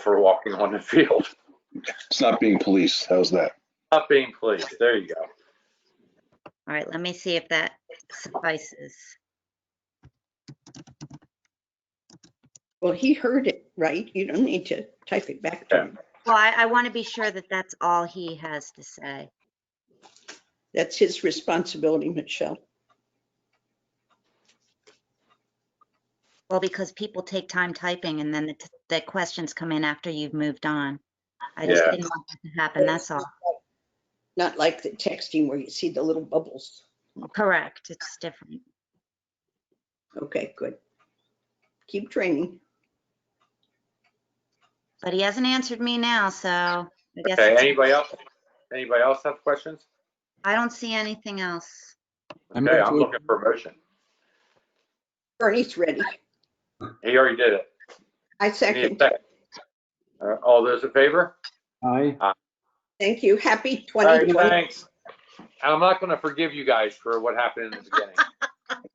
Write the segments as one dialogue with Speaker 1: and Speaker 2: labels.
Speaker 1: for walking on the field.
Speaker 2: It's not being policed. How's that?
Speaker 1: Not being policed. There you go.
Speaker 3: All right, let me see if that suffices.
Speaker 4: Well, he heard it, right? You don't need to type it back to him.
Speaker 3: Well, I, I want to be sure that that's all he has to say.
Speaker 4: That's his responsibility, Michelle.
Speaker 3: Well, because people take time typing and then the, t- the questions come in after you've moved on. I just
Speaker 1: Yeah.
Speaker 3: didn't want that to happen, that's all.
Speaker 4: Not like the texting where you see the little bubbles.
Speaker 3: Correct, it's different.
Speaker 4: Okay, good. Keep training.
Speaker 3: But he hasn't answered me now, so I guess
Speaker 1: Okay,
Speaker 3: it's-
Speaker 1: anybody else? Anybody else have questions?
Speaker 3: I don't see anything else.
Speaker 5: I move
Speaker 1: Okay, I'm
Speaker 5: to,
Speaker 1: looking for a motion.
Speaker 4: Bernie's ready.
Speaker 1: He already did it.
Speaker 4: I
Speaker 1: Need a
Speaker 4: second.
Speaker 1: second. Uh, All those in favor?
Speaker 5: aye,
Speaker 4: Thank you. Happy
Speaker 1: All right,
Speaker 4: 2020.
Speaker 1: thanks. I'm not gonna forgive you guys for what happened in the beginning.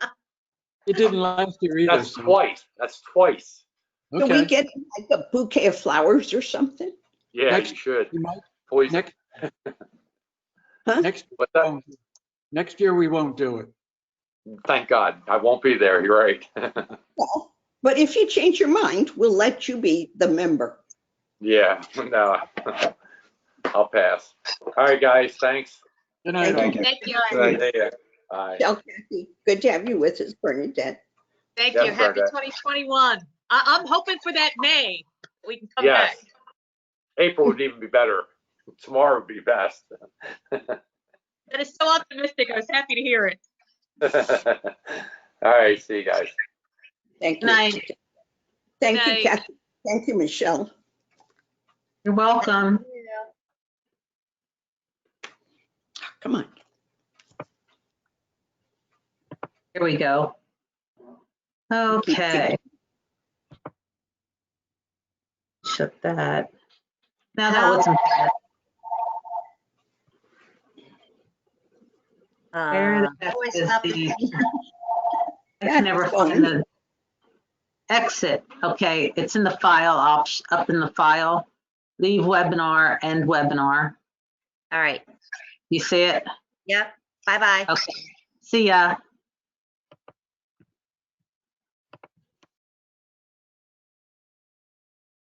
Speaker 5: it didn't last year either.
Speaker 1: That's
Speaker 5: so-
Speaker 1: twice. That's twice.
Speaker 4: Can we
Speaker 5: Okay,
Speaker 4: get like a bouquet of flowers or something?
Speaker 1: Yeah, you
Speaker 5: Next-
Speaker 1: should.
Speaker 5: you might-
Speaker 1: Poison.
Speaker 5: next, Oh.
Speaker 4: Huh?
Speaker 5: next,
Speaker 1: What's that?
Speaker 5: won't- next year we won't do it.
Speaker 1: Thank God. I won't be there. You're right.
Speaker 4: Well, But if you change your mind, we'll let you be the member.
Speaker 1: Yeah, no. I'll pass. All right, guys, thanks.
Speaker 5: Good night, all.
Speaker 2: Thank you.
Speaker 6: Thank you.
Speaker 2: Right.
Speaker 1: See ya. Bye.
Speaker 4: Tell Kathy, good to have you with us, Bernadette.
Speaker 6: Thank
Speaker 1: Yeah,
Speaker 6: you. Happy
Speaker 1: Brenda.
Speaker 6: 2021. I, I'm hoping for that May. We can come back.
Speaker 1: Yes. April would even be better. Tomorrow would be best.
Speaker 6: That is so optimistic. I was happy to hear it.
Speaker 1: All right, see you guys.
Speaker 4: Thank you.
Speaker 6: Night.
Speaker 4: Thank you,
Speaker 6: Night.
Speaker 4: Kathy. Thank you, Michelle.
Speaker 6: You're welcome.
Speaker 4: Come on.
Speaker 6: Here we go. Okay. Shut that. Now that wasn't bad. Where
Speaker 3: Uh,
Speaker 6: the heck
Speaker 3: always
Speaker 6: is
Speaker 3: up-
Speaker 6: the- I
Speaker 4: That's
Speaker 6: can never
Speaker 4: fun.
Speaker 6: find the exit. Okay, it's in the file, op- up in the file. Leave webinar, end webinar.
Speaker 3: All right,
Speaker 6: You see it?
Speaker 3: yep, bye-bye.
Speaker 6: Okay. See ya.